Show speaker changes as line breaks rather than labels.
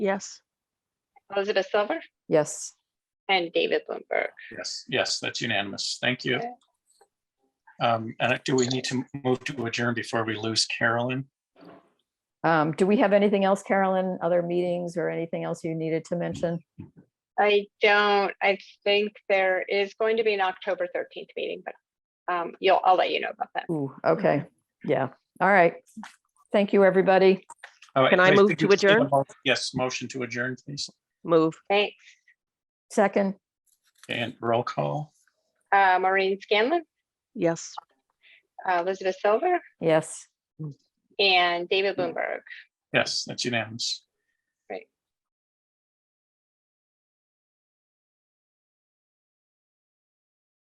Yes.
Elizabeth Silver
Yes.
and David Bloomberg.
Yes, yes, that's unanimous. Thank you.
Okay.
Um, And do we need to move to adjourn before we lose Carolyn?
Um, do we have anything else, Carolyn, other meetings or anything else you needed to mention?
I don't, I think there is going to be an October 13th meeting, but um, you'll, I'll let you know about that.
Ooh, okay, yeah, all right. Thank you, everybody.
All right,
Can I
please,
move
could you
to
just give a
adjourn?
mo- Yes, motion to adjourn, please.
Move.
Thanks.
Second,
And roll call.
Uh, Maureen Scanlon,
Yes.
uh, Elizabeth Silver,
yes.
and David Bloomberg.
Yes, that's unanimous.